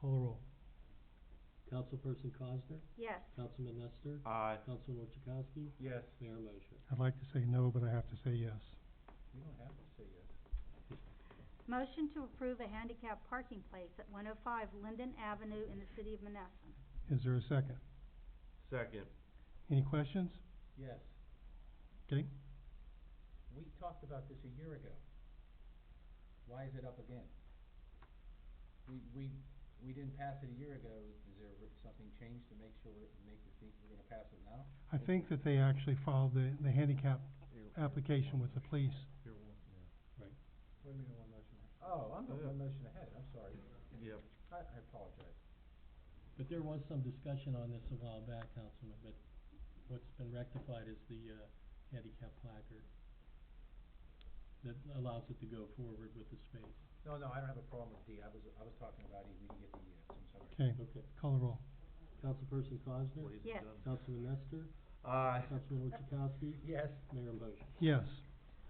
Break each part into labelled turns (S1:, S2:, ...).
S1: Call the roll.
S2: Councilperson Cosner,
S3: Yes.
S2: Councilman Nestor,
S4: Aye.
S2: Councilman Orchakowski,
S4: Yes.
S2: Mayor Mosher.
S1: I'd like to say no, but I have to say yes.
S4: You don't have to say yes.
S3: Motion to approve a handicap parking place at one oh five Linden Avenue in the city of Menneson.
S1: Is there a second?
S4: Second.
S1: Any questions?
S4: Yes.
S1: Okay,
S4: We talked about this a year ago. Why is it up again? We, we, we didn't pass it a year ago. Is there re- something changed to make sure, make you think we're gonna pass it now?
S1: I think that they actually filed the, the handicap application with the police.
S4: What do you mean one motion? Oh, I'm the one motion ahead. I'm sorry. Yep. I, I apologize.
S2: But there was some discussion on this a while back, Councilman, but what's been rectified is the, uh, handicap placard that allows it to go forward with the space.
S4: No, no, I don't have a problem with D. I was, I was talking about E. We can get the E. I'm sorry.
S1: Okay,
S2: Okay.
S1: call the roll.
S2: Councilperson Cosner,
S3: Yes.
S2: Councilman Nestor,
S4: Aye.
S2: Councilman Orchakowski,
S4: Yes.
S2: Mayor Mosher.
S1: Yes.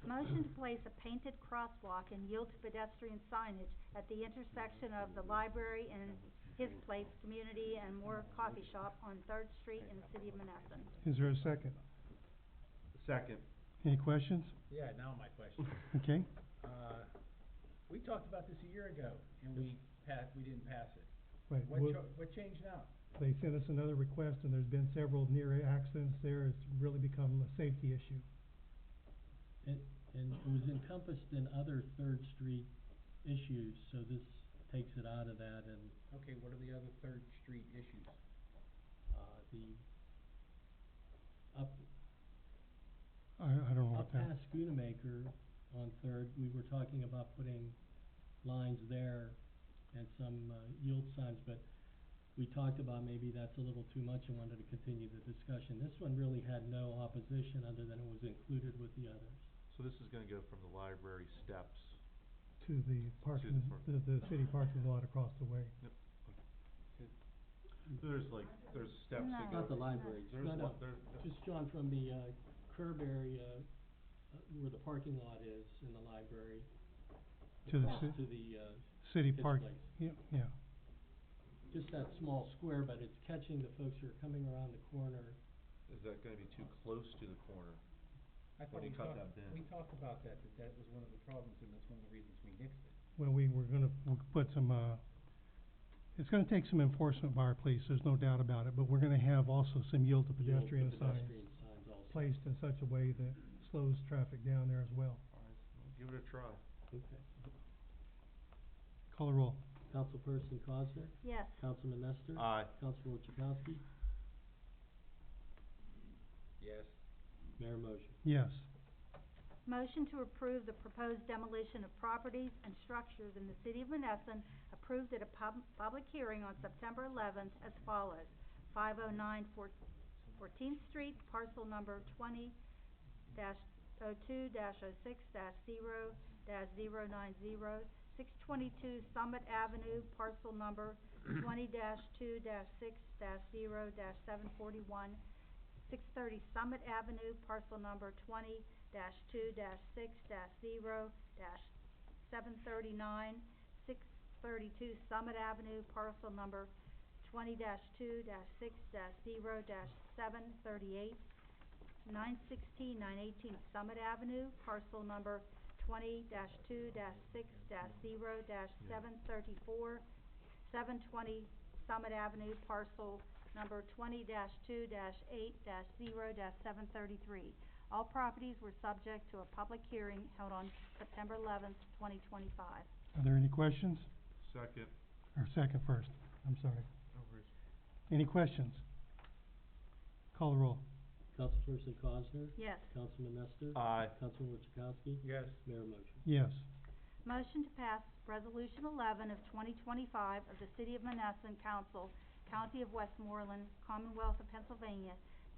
S3: Motion to place a painted crosswalk and yield to pedestrian signage at the intersection of the library and His Place Community and Moore Coffee Shop on Third Street in the city of Menneson.
S1: Is there a second?
S4: Second.
S1: Any questions?
S4: Yeah, now my question.
S1: Okay,
S4: Uh, we talked about this a year ago, and we passed, we didn't pass it.
S1: wait,
S4: What
S1: we'll-
S4: cho- what changed now?
S1: they sent us another request and there's been several near accidents there. It's really become a safety issue.
S2: It, and it was encompassed in other Third Street issues, so this takes it out of that and,
S4: Okay, what are the other Third Street issues?
S2: uh, the up,
S1: I, I don't know what
S2: up
S1: that,
S2: past Schoonamaker on Third, we were talking about putting lines there and some, uh, yield signs, but we talked about maybe that's a little too much and wanted to continue the discussion. This one really had no opposition other than it was included with the others.
S5: So this is gonna go from the library steps,
S1: to the parking,
S5: front.
S1: the, the city parking lot across the way.
S5: there's like, there's steps that
S3: No.
S5: go.
S2: Not the library,
S5: There's
S2: no, no.
S5: one, there's,
S2: Just John, from the, uh, curb area, uh, where the parking lot is in the library.
S1: To the
S2: across
S1: ci-
S2: To the, uh,
S1: City
S2: kids'
S1: park,
S2: place.
S1: yeah, yeah,
S2: Just that small square, but it's catching the folks who are coming around the corner.
S5: is that gonna be too close to the corner?
S4: I thought we
S5: do you cut
S4: talked,
S5: that down?
S4: we talked about that, that that was one of the problems, and that's one of the reasons we nixed it.
S1: well, we were gonna, we'll put some, uh, it's gonna take some enforcement by our police, there's no doubt about it, but we're gonna have also some yield to
S2: You know, the
S1: pedestrian signs
S2: Pedestrian signs also.
S1: placed in such a way that slows traffic down there as well.
S5: Alright, well, give it a try.
S2: Okay.
S1: Call the roll.
S2: Councilperson Cosner,
S3: Yes.
S2: Councilman Nestor,
S5: Aye.
S2: Councilman Chakowski,
S4: Yes.
S2: Mayor Mosher.
S1: Yes.
S3: Motion to approve the proposed demolition of properties and structures in the city of Menneson approved at a pub- public hearing on September eleventh as follows. Five oh nine Fourteenth Street, parcel number twenty dash oh two dash oh six dash zero dash zero nine zero. Six twenty-two Summit Avenue, parcel number twenty dash two dash six dash zero dash seven forty-one. Six thirty Summit Avenue, parcel number twenty dash two dash six dash zero dash seven thirty-nine, six thirty-two Summit Avenue, parcel number twenty dash two dash six dash zero dash seven thirty-eight, nine sixteen, nine eighteen Summit Avenue, parcel number twenty dash two dash six dash zero dash seven thirty-four, seven twenty Summit Avenue, parcel number twenty dash two dash eight dash zero dash seven thirty-three. All properties were subject to a public hearing held on September eleventh, twenty twenty-five.
S1: Are there any questions?
S5: Second.
S1: Or second first, I'm sorry. Any questions? Call the roll.
S2: Councilperson Cosner,
S3: Yes.
S2: Councilman Nestor,
S5: Aye.
S2: Councilman Chakowski,
S4: Yes.
S2: Mayor Mosher.
S1: Yes.
S3: Motion to pass Resolution eleven of twenty twenty-five of the City of Menneson Council, County of Westmoreland, Commonwealth of Pennsylvania,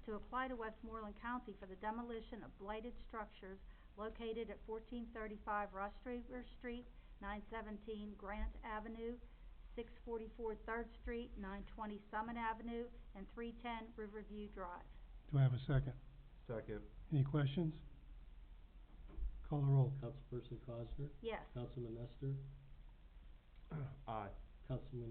S3: to apply to Westmoreland County for the demolition of blighted structures located at fourteen thirty-five Rush River Street, nine seventeen Grant Avenue, six forty-four Third Street, nine twenty Summit Avenue, and three ten Riverview Drive.
S1: Do I have a second?
S5: Second.
S1: Any questions? Call the roll.
S2: Councilperson Cosner,
S3: Yes.
S2: Councilman Nestor,
S5: Aye.
S2: Councilman